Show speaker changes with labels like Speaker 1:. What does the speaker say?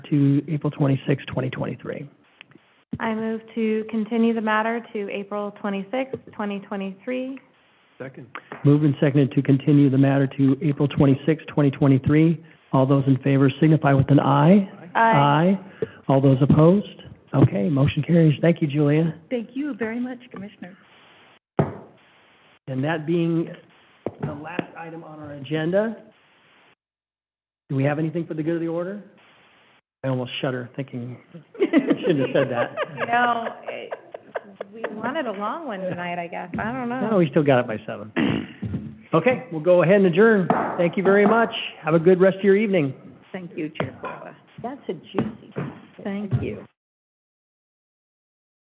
Speaker 1: to April 26, 2023.
Speaker 2: I move to continue the matter to April 26, 2023.
Speaker 3: Second.
Speaker 1: Moved and seconded to continue the matter to April 26, 2023. All those in favor signify with an aye.
Speaker 2: Aye.
Speaker 1: All those opposed? Okay, motion carries. Thank you, Julia.
Speaker 4: Thank you very much, Commissioner.
Speaker 1: And that being the last item on our agenda, do we have anything for the good of the order? I almost shudder thinking, shouldn't have said
Speaker 2: You
Speaker 1: that.
Speaker 2: know, it- we wanted a long one tonight, I guess. I don't
Speaker 1: No,
Speaker 2: know.
Speaker 1: we still got it by seven. Okay, we'll go ahead and adjourn. Thank you very much. Have a good rest of your evening.
Speaker 4: Thank you, Chair That's a juicy, thank you.